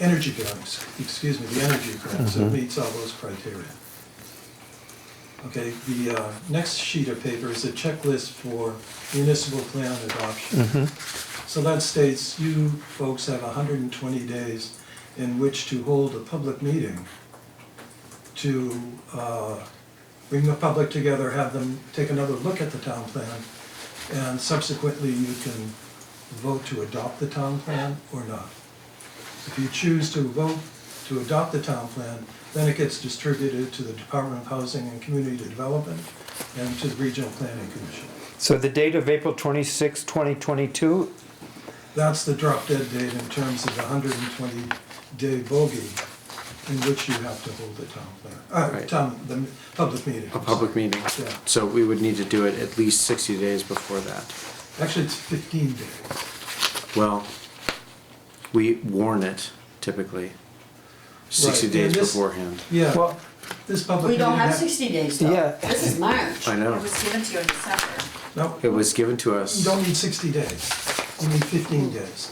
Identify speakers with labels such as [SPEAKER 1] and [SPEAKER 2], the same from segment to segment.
[SPEAKER 1] energy drawings, excuse me, the energy drawings, it meets all those criteria. Okay, the uh, next sheet of paper is a checklist for municipal plan adoption. So that states you folks have hundred and twenty days in which to hold a public meeting to uh, bring the public together, have them take another look at the town plan, and subsequently you can vote to adopt the town plan or not. If you choose to vote to adopt the town plan, then it gets distributed to the Department of Housing and Community Development and to the Regional Planning Commission.
[SPEAKER 2] So the date of April 26, 2022,
[SPEAKER 1] That's the drop dead date in terms of the hundred and twenty day bogey in which you have to hold the town plan, uh,
[SPEAKER 3] Right.
[SPEAKER 1] town, the public meeting.
[SPEAKER 3] A public meeting.
[SPEAKER 1] Yeah.
[SPEAKER 3] So we would need to do it at least sixty days before that.
[SPEAKER 1] Actually, it's fifteen days.
[SPEAKER 3] Well, we warn it typically sixty
[SPEAKER 1] Right,
[SPEAKER 3] days
[SPEAKER 1] and this-
[SPEAKER 3] beforehand.
[SPEAKER 1] Yeah,
[SPEAKER 2] well,
[SPEAKER 1] this public
[SPEAKER 4] We
[SPEAKER 1] meeting.
[SPEAKER 4] don't have
[SPEAKER 1] ha-
[SPEAKER 4] sixty days though.
[SPEAKER 2] Yeah.
[SPEAKER 4] This is March.
[SPEAKER 3] I
[SPEAKER 5] It
[SPEAKER 3] know.
[SPEAKER 5] was given to you in December.
[SPEAKER 1] No,
[SPEAKER 3] It was given to us.
[SPEAKER 1] you don't need sixty days, you need fifteen days.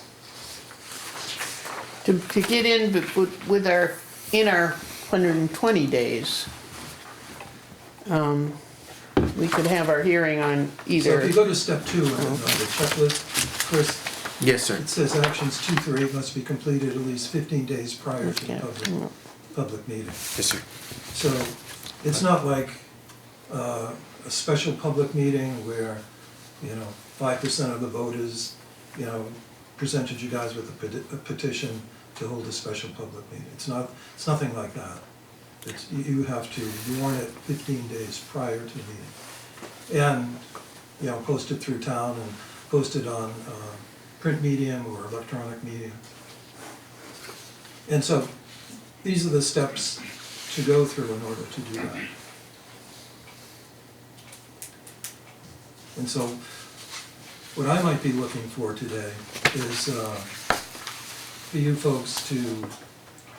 [SPEAKER 6] to, to get in bef- with- with our, in our hundred and twenty days. Um, we could have our hearing on
[SPEAKER 1] So if
[SPEAKER 6] either,
[SPEAKER 1] you go to step two on the on the checklist, Chris,
[SPEAKER 3] Yes, sir.
[SPEAKER 1] it says actions two through eight must be completed at least fifteen days prior to the
[SPEAKER 6] Yeah.
[SPEAKER 1] public, public meeting.
[SPEAKER 3] Yes, sir.
[SPEAKER 1] So it's not like uh, a special public meeting where, you know, five percent of the voters, you know, presented you guys with a peti- a petition to hold a special public meeting. It's not, it's nothing like that. It's, you- you have to warn it fifteen days prior to the meeting. And, you know, post it through town and post it on uh, print medium or electronic medium. And so these are the steps to go through in order to do that. And so what I might be looking for today is uh, for you folks to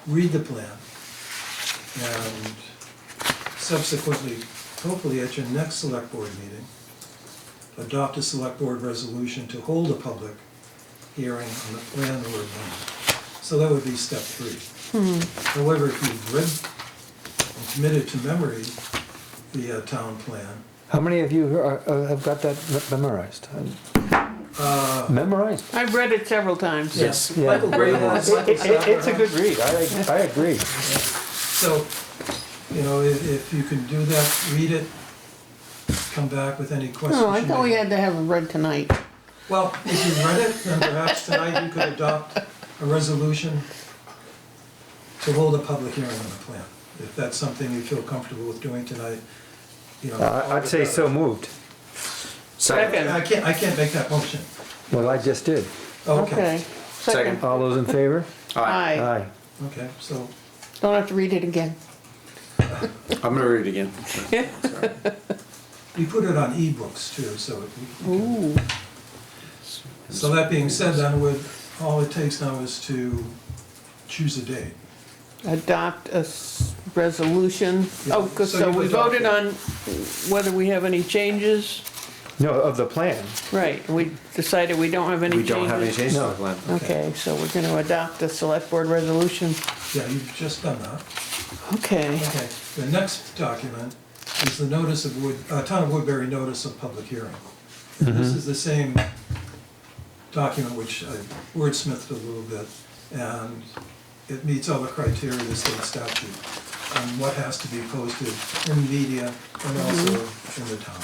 [SPEAKER 1] read the plan and subsequently, hopefully at your next select board meeting, adopt a select board resolution to hold a public hearing on the plan or amendment. So that would be step three. However, if you've read and committed to memory the uh, town plan,
[SPEAKER 2] how many of you are- are- have got that memorized? Memorized?
[SPEAKER 6] I've read it several times.
[SPEAKER 3] Yes.
[SPEAKER 2] Yeah.
[SPEAKER 1] Michael Gray was-
[SPEAKER 2] It- it- It's a good read, I, I agree.
[SPEAKER 1] so, you know, if, if you can do that, read it, come back with any questions.
[SPEAKER 6] No, Oh, I
[SPEAKER 1] you
[SPEAKER 6] thought we
[SPEAKER 1] may-
[SPEAKER 6] had to have it read tonight.
[SPEAKER 1] Well, if you read it, then perhaps tonight you could adopt a resolution to hold a public hearing on the plan. If that's something you feel comfortable with doing tonight, you know. all
[SPEAKER 2] Uh, I'd
[SPEAKER 1] the
[SPEAKER 2] say
[SPEAKER 1] better.
[SPEAKER 2] so moved.
[SPEAKER 3] Second.
[SPEAKER 1] I can't, I can't make that motion.
[SPEAKER 2] Well, I just did.
[SPEAKER 6] Okay.
[SPEAKER 3] Second.
[SPEAKER 2] All those in favor?
[SPEAKER 3] Aye.
[SPEAKER 6] Aye.
[SPEAKER 2] Aye.
[SPEAKER 1] Okay, so
[SPEAKER 6] Don't have to read it again.
[SPEAKER 3] I'm gonna read it again. Sorry.
[SPEAKER 1] We put it on ebooks too, so. it- So that being said, then with, all it takes now is to choose a date.
[SPEAKER 6] Adopt a s- resolution.
[SPEAKER 1] Yeah,
[SPEAKER 6] Oh, 'cause-
[SPEAKER 1] so
[SPEAKER 6] so
[SPEAKER 1] you
[SPEAKER 6] we
[SPEAKER 1] adopt
[SPEAKER 6] voted
[SPEAKER 1] it.
[SPEAKER 6] on whether we have any changes.
[SPEAKER 2] No, of the plan,
[SPEAKER 6] Right, we decided we don't have any
[SPEAKER 3] We
[SPEAKER 6] changes.
[SPEAKER 3] don't have any changes to
[SPEAKER 2] No.
[SPEAKER 3] the plan.
[SPEAKER 6] Okay, so we're gonna adopt the select board resolution.
[SPEAKER 1] Yeah, you've just done that.
[SPEAKER 6] Okay,
[SPEAKER 1] Okay, the next document is the notice of Wood, uh, Town of Woodbury Notice of Public Hearing. And This
[SPEAKER 3] Mm-hmm.
[SPEAKER 1] is the same document which I wordsmithed a little bit, and it meets all the criteria of the state statute on what has to be posted in media and also
[SPEAKER 3] Mm-hmm.
[SPEAKER 1] in the town.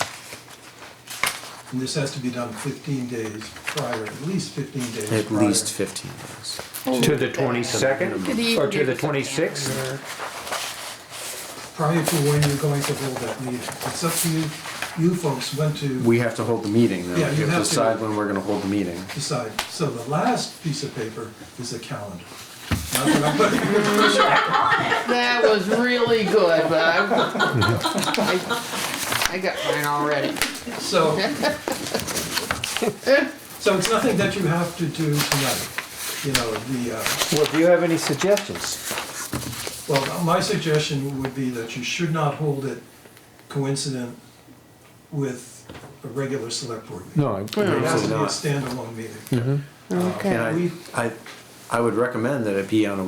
[SPEAKER 1] And this has to be done fifteen days prior, at least fifteen days prior.
[SPEAKER 3] At least fifteen days.
[SPEAKER 2] to the 22nd, or to the 26th?
[SPEAKER 1] Prior to when you're going to hold that meeting. It's up to you, you folks when to.
[SPEAKER 3] We have to hold the meeting though.
[SPEAKER 1] Yeah,
[SPEAKER 3] We
[SPEAKER 1] you have
[SPEAKER 3] have to
[SPEAKER 1] to.
[SPEAKER 3] decide when we're gonna hold the meeting.
[SPEAKER 1] decide. So the last piece of paper is a calendar. Not that I'm putting you under pressure.
[SPEAKER 6] That was really good, but I, I- I got mine already.
[SPEAKER 1] So, so it's nothing that you have to do tonight. You know, the, uh,
[SPEAKER 2] Well, do you have any suggestions?
[SPEAKER 1] well, my suggestion would be that you should not hold it coincident with a regular select board meeting.
[SPEAKER 2] No, I-
[SPEAKER 1] It has to be a
[SPEAKER 3] Absolutely
[SPEAKER 1] standalone meeting.
[SPEAKER 6] Okay.
[SPEAKER 3] And I, I, I would recommend that it be on a